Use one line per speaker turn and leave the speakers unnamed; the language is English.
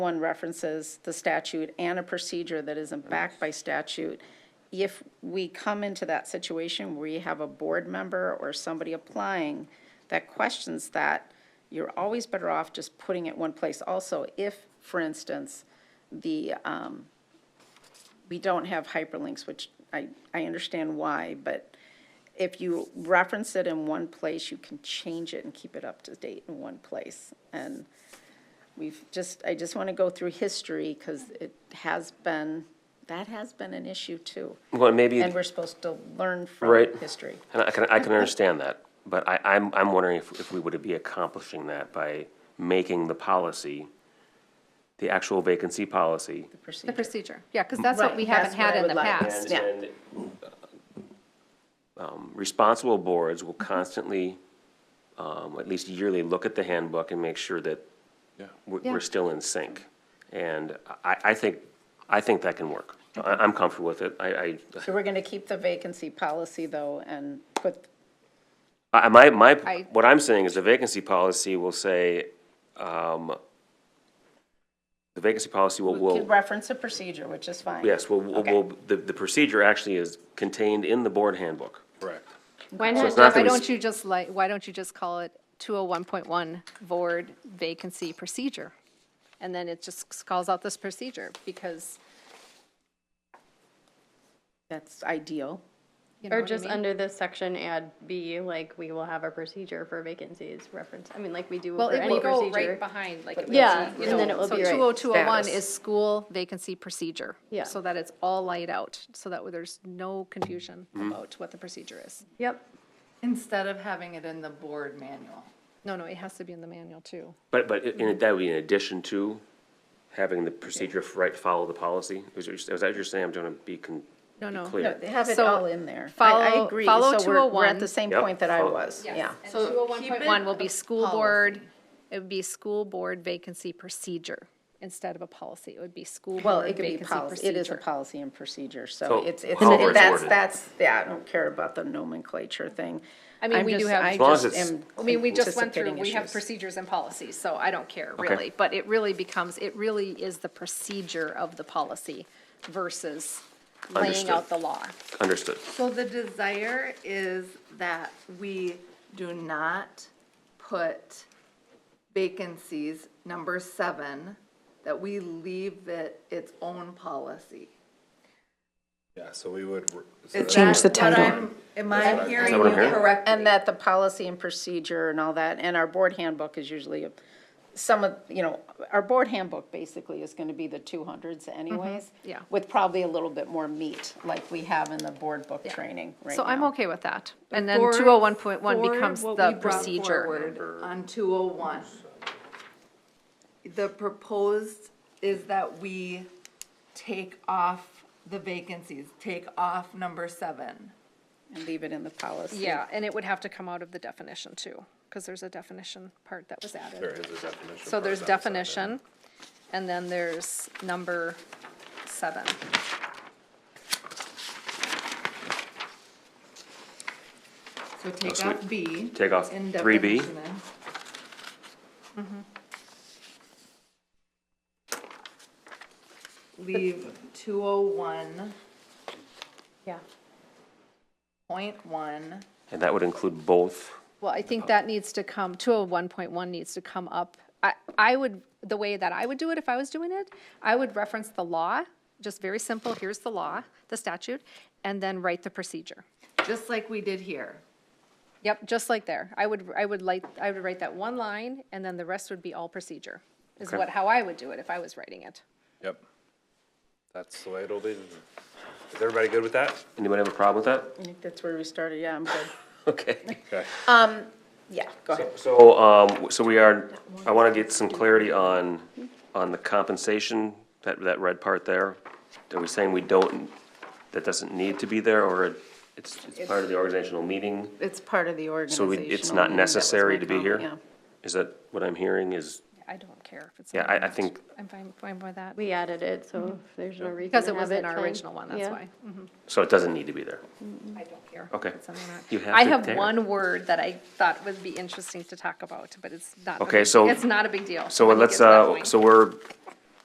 one references the statute and a procedure that isn't backed by statute. If we come into that situation where you have a board member or somebody applying that questions that, you're always better off just putting it one place. Also, if, for instance, the, um, we don't have hyperlinks, which I, I understand why, but if you reference it in one place, you can change it and keep it up to date in one place. And we've just, I just want to go through history because it has been, that has been an issue too.
Well, and maybe,
And
and
we're supposed to learn from
Right.
history.
I can, I can understand that, but I, I'm, I'm wondering if, if we would be accomplishing that by making the policy, the actual vacancy policy.
The
procedure.
procedure, yeah, because that's what
Right,
we
that's
haven't
what
had
I
in
would
the
like.
past.
And,
Yeah.
and, uh, um, responsible boards will
Mm-hmm.
constantly, um, at least yearly, look at the handbook and make sure that we're,
Yeah.
we're still in sync. And I, I think, I think that can work. I, I'm comfortable with it. I, I,
So we're going to keep the vacancy policy though and put,
I, my, my,
I-
what I'm saying is the vacancy policy will say, um, the vacancy policy will,
we
will,
could reference a procedure, which is fine.
yes, will, will-
Okay.
will, the, the procedure actually is contained in the board handbook.
Correct.
Why
So it's
not,
not that
why
we-
don't you just like, why don't you just call it 201.1 board vacancy procedure? And then it just calls out this procedure because,
That's ideal.
you know
Or
what I
just
mean?
under this section, add B, like, we will have a procedure for vacancies reference, I mean, like we do
Well,
for
it
any
will go right
procedure.
behind, like. it would
Yeah,
be, you
and then
know,
it will
so
be right
20201
status.
is school vacancy procedure.
Yeah.
So that it's all laid out, so that there's no confusion about what the procedure is.
Yep,
Instead of having it in the board manual.
No, no, it has to be in the manual too.
But, but in- in, that would be in addition to having the procedure for right, follow the policy? Is, is that what you're saying? I'm trying to be con,
No,
be
no.
clear.
They Have it
So,
all in there. I- I
follow-
agree.
follow
So we're- We're at
201.
the same
Yep.
point that I
Follow-
was, yeah.
And
So keep it
201.1 will be
a
school board, it would be school board vacancy procedure instead of a policy. It would be school
Well,
board
it could be
vacancy
policy, it is a
procedure.
policy and procedure, so
So,
it's, it's,
however it's
that's,
worded.
that's, yeah, I don't care about the nomenclature thing.
I mean,
I'm
we do
just-
have-
I
As
long as
just
it's-
am
I mean, we just went through,
anticipating
we have
issues.
procedures and policies, so I don't care really. But it really becomes, it really is the procedure of the policy versus laying
Understood.
out the law.
Understood.
So the desire is that we do not put vacancies, number seven, that we leave it its own policy.
Yeah, so we would. re- so
Is
that-
that what I'm- Am I hearing
what
you
I'm hearing?
correctly?
And that the policy and procedure and all that, and our board handbook is usually, a- some of, you know, our board handbook basically is gonna be the two hundreds anyways.
Mm-hmm. yeah.
With probably a little bit more meat, like we have in the board book training right
So I'm
now.
okay with that. And then
For-
201.1
for
becomes
what
the
we brought
procedure.
forward On two oh one. The proposed is that we take off the vacancies, take off number seven.
And leave it in the policy.
Yeah, and it would have to come out of the definition too, because there's a definition part that was added.
There is a definition.
So
for
there's
that, that-
definition, and then there's number seven.
So take
so we-
off B.
take off
in
3B?
definition Mm-hmm. then. Leave two oh one
Yeah.
point one.
And that would include both.
Well, I
Oh.
think that needs to come, 201.1 needs to come up. I, I would, the way that I would do it if I was doing it, I would reference the law, just very simple, here's the law, the statute, and then write the procedure.
just like we did here.
Yep, just like there. I would, I would like, I would write that one line, and then the rest would be all procedure, is
Okay.
what, how I would do it if I was writing it.
Yep. That's the way it'll be. Is everybody good with that?
Anyone have a problem with
I
that?
think that's where we started, yeah, I'm good.
Okay.
Okay.
Yeah, go ahead.
So, um, so we are, I want to get some clarity on, on the compensation, that, that red part there. Are we saying we don't, that doesn't need to be there, or it's, it's part of the organizational meeting?
It's part of the
So
organizational.
we- it's not
meeting, that was
necessary
my
to be
comment,
here?
yeah.
Is that what I'm hearing is,
I don't care if it's.
yeah,
not
I, I
announced.
think,
I'm fine, fine with that.
we added it, so if there's no reason to
Because it
have
was in
it,
our
fine.
original one, that's
Yeah.
why.
so it doesn't need to be there.
I don't care.
Okay.
if it's in or not.
You have
I
to
have
care.
one word that I thought would be interesting to talk about, but it's not. a
Okay,
big-
so-
It's not a big deal.
So
when we
let's,
get to that
uh,
point.
so we're